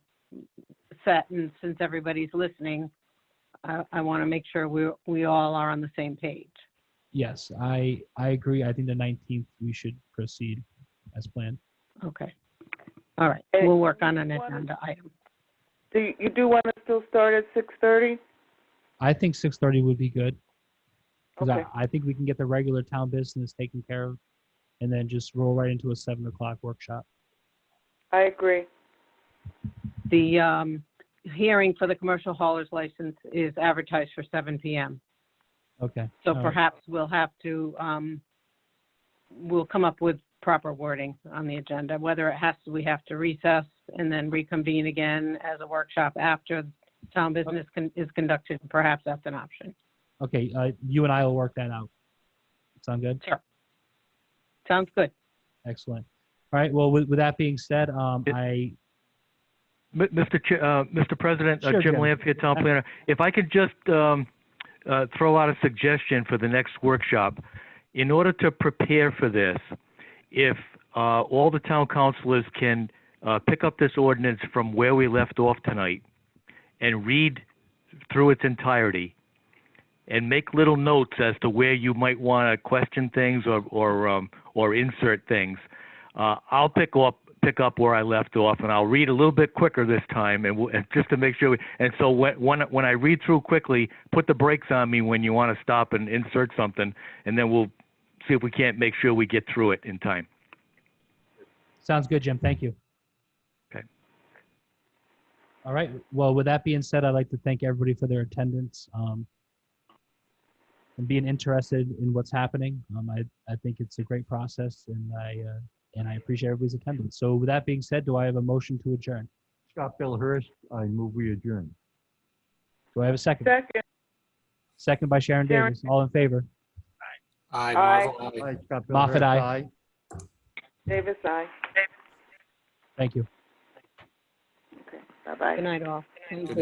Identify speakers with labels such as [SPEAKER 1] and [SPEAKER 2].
[SPEAKER 1] set, and since everybody's listening, I, I want to make sure we, we all are on the same page.
[SPEAKER 2] Yes, I, I agree. I think the 19th, we should proceed as planned.
[SPEAKER 1] Okay. All right,
[SPEAKER 3] And-
[SPEAKER 1] we'll work on an
[SPEAKER 3] You wanna-
[SPEAKER 1] agenda item.
[SPEAKER 3] Do you, you do want to still start at six thirty?
[SPEAKER 2] I think 6:30 would be good. Because
[SPEAKER 3] Okay,
[SPEAKER 2] I, I think we can get the regular town business taken care of and then just roll right into a 7 o'clock workshop.
[SPEAKER 3] I agree.
[SPEAKER 1] The, um, hearing for the commercial hauler's license is advertised for seven PM.
[SPEAKER 2] Okay.
[SPEAKER 1] So
[SPEAKER 2] all right.
[SPEAKER 1] perhaps we'll have to, um, we'll come up with proper wording on the agenda, whether it has, to we have to recess and then reconvene again as a workshop after town business con- is conducted, perhaps that's an option.
[SPEAKER 2] Okay, uh, you and I will work that out. Sound good?
[SPEAKER 1] Sounds good.
[SPEAKER 2] Excellent. All right, well, with, with that being said, um,
[SPEAKER 4] It-
[SPEAKER 2] I,
[SPEAKER 4] M- Mr. Ch- uh, Mr. President, uh,
[SPEAKER 2] Sure,
[SPEAKER 4] Jim
[SPEAKER 2] Jim.
[SPEAKER 4] Lampier, Town Planner, if I could just um, uh, throw out a suggestion for the next workshop. In order to prepare for this, if uh, all the town councilors can uh, pick up this ordinance from where we left off tonight and read through its entirety and make little notes as to where you might want to question things or, or, um, or insert things, uh, I'll pick up pick up where I left off, and I'll read a little bit quicker this time, and, we'll, and just to make sure. We, and so when when when I read through quickly, put the brakes on me when you want to stop and insert something, and then we'll see if we can't make sure we get through it in time.
[SPEAKER 2] sounds good, Jim, thank you.
[SPEAKER 4] Okay.
[SPEAKER 2] All right, well, with that being said, I'd like to thank everybody for their attendance, um, and being interested in what's happening. Um, I, I think it's a great process, and I, uh, and I appreciate everybody's attendance. So with that being said, do I have a motion to adjourn?
[SPEAKER 5] Scott Billhurst, I move we adjourn.
[SPEAKER 2] Do I have a second?
[SPEAKER 3] Second,
[SPEAKER 2] Second by Sharon
[SPEAKER 3] Sharon.
[SPEAKER 2] Davis, all in favor?
[SPEAKER 6] Aye,
[SPEAKER 3] Aye.
[SPEAKER 6] Marvel, aye.
[SPEAKER 5] Aye, Scott Billhurst,
[SPEAKER 2] Moffett, aye.
[SPEAKER 3] Davis, aye.
[SPEAKER 2] Thank you.
[SPEAKER 3] Okay, bye-bye.
[SPEAKER 1] Good night, all. Thank you.